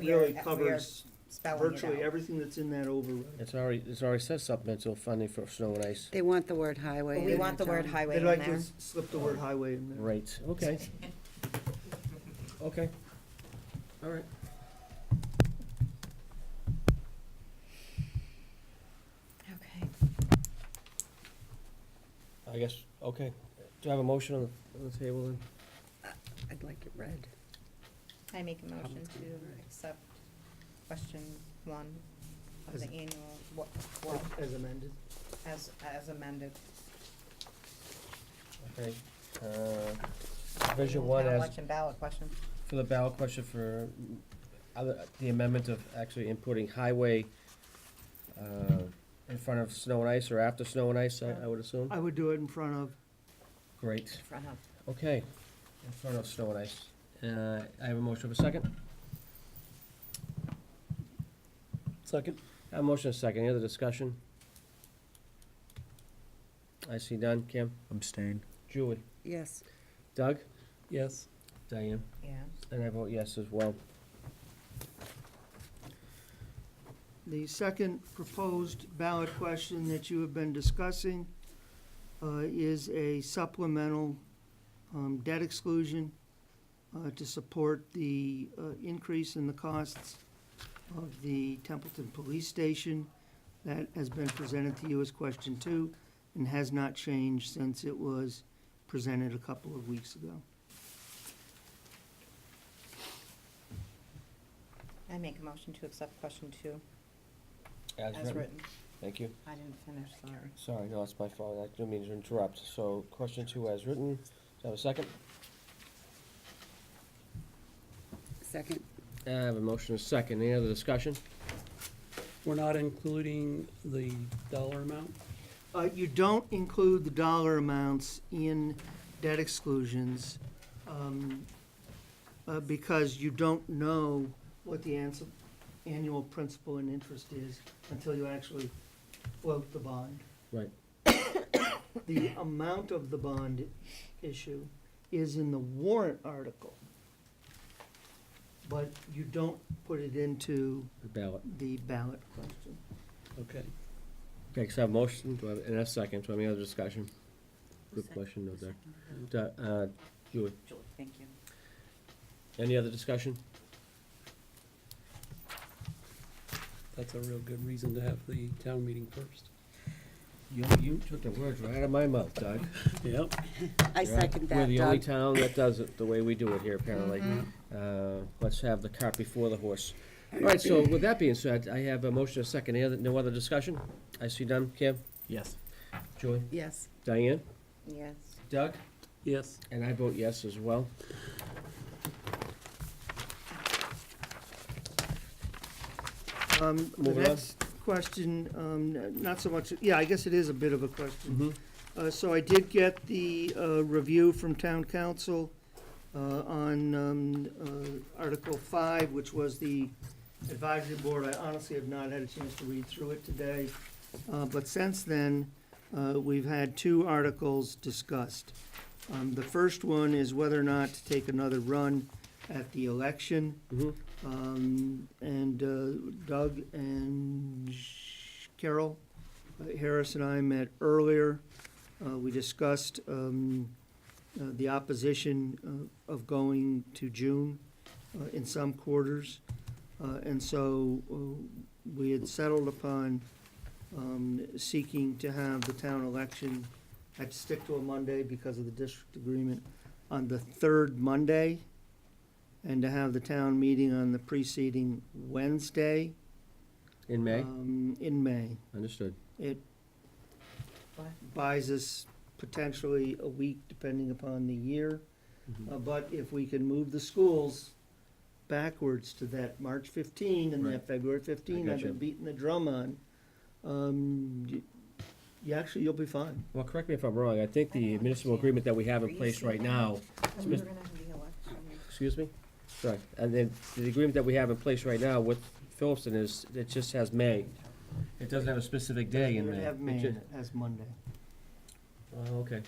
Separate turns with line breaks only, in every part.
we are-
really
we are
covers
spelling it
virtually
out.
everything that's in that override.
It's already, it's already says supplemental funding for snow and ice
They want the word highway.
But we
in
want the
there,
word
Tom.
highway
They'd
in
like to
there.
s- slip the word highway in there.
rates, okay. Okay, all right.
Okay.
I guess, okay. Do I have a motion on the, on the table then?
I'd like it read.
I make a motion to accept question one of
As-
the annual, what, what,
As amended.
as, as amended.
Okay. Uh, Provision one
Town
as,
Election ballot question.
for the ballot question for uh, other, the amendment of actually inputting highway, uh, in front of snow and ice or after snow and ice, I, I would assume?
I would do it in front of,
Great,
Front of.
okay. In front of snow and ice. Uh, I have a motion of a second? Second. I have a motion of a second. Any other discussion? I see none. Kim?
Abstain.
Julie?
Yes,
Doug?
Yes.
Diane?
Yeah.
And I vote yes as well.
the second proposed ballot question that you have been discussing uh, is a supplemental um, debt exclusion uh, to support the uh, increase in the costs of the Templeton Police Station. That has been presented to you as question two and has not changed since it was presented a couple of weeks ago.
I make a motion to accept question two
As
as written.
Thank you.
I didn't finish, sorry.
Sorry, no, it's my fault. I didn't mean to interrupt. So question two as written. Do I have a second?
second.
I have a motion and a second. Any other discussion?
We're not including the dollar amount?
Uh, you don't include the dollar amounts in debt exclusions, um, uh, because you don't know what the ans- annual principal and interest is until you actually float the bond.
Right.
The amount of the bond issue is in the warrant article, but you don't put it into
The ballot.
the ballot question.
Okay.
Okay, so I have a motion, do I have, and a second, do I have any other discussion? Good question, no, there. Do- Uh, Julie,
Julie, thank you.
any other discussion?
That's a real good reason to have the town meeting first.
You, you took the words right out of my mouth, Doug.
Yep.
I
You're right.
second
We're
that,
the only
Doug. Mm-hmm.
town that does it the way we do it here, apparently. Uh, let's have the cart before the horse. All right, so with that being said, I have a motion, a second, any other, no other discussion? I see done, Kim,
Yes.
Julie,
Yes,
Diane,
Yes.
Doug,
Yes.
and I vote yes as well.
Um, the
Moving on.
next question, um, n- not so much, yeah, I guess it is a bit of a question.
Mm-hmm.
Uh, so I did get the, uh, review from town council, uh, on, um, uh, Article five, which was the advisory board. I honestly have not had a chance to read through it today. Uh, but since then, uh, we've had two articles discussed. Um, the first one is whether or not to take another run at the election.
Mhm.
Um, and uh, Doug and Carol uh, Harris and I met earlier. Uh, we discussed, um, uh, the opposition uh, of going to June, uh, in some quarters. Uh, and so, uh, we had settled upon, um, seeking to have the town election, had to stick to a Monday because of the district agreement, on the third Monday and to have the town meeting on the preceding Wednesday.
In May,
um, In May.
understood.
It
What?
buys us potentially a week depending upon the year.
Mhm.
Uh, But if we can move the schools backwards to that March 15 and
Right.
that February 15, I've
gotcha.
been beating the drum on, um, y- you actually, you'll be fine.
Well, correct me if I'm wrong, I think the municipal agreement that we have in place right now,
We were gonna have the election.
excuse me? Sorry, and then the agreement that we have in place right now with Phillipston is, it just has May. It doesn't have a specific day
You're
in May.
gonna have
It
May
ju-
as Monday.
Oh, okay,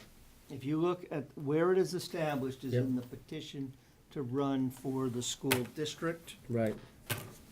If you look at where it is established is
Yep.
in the petition to run for the school district.
right,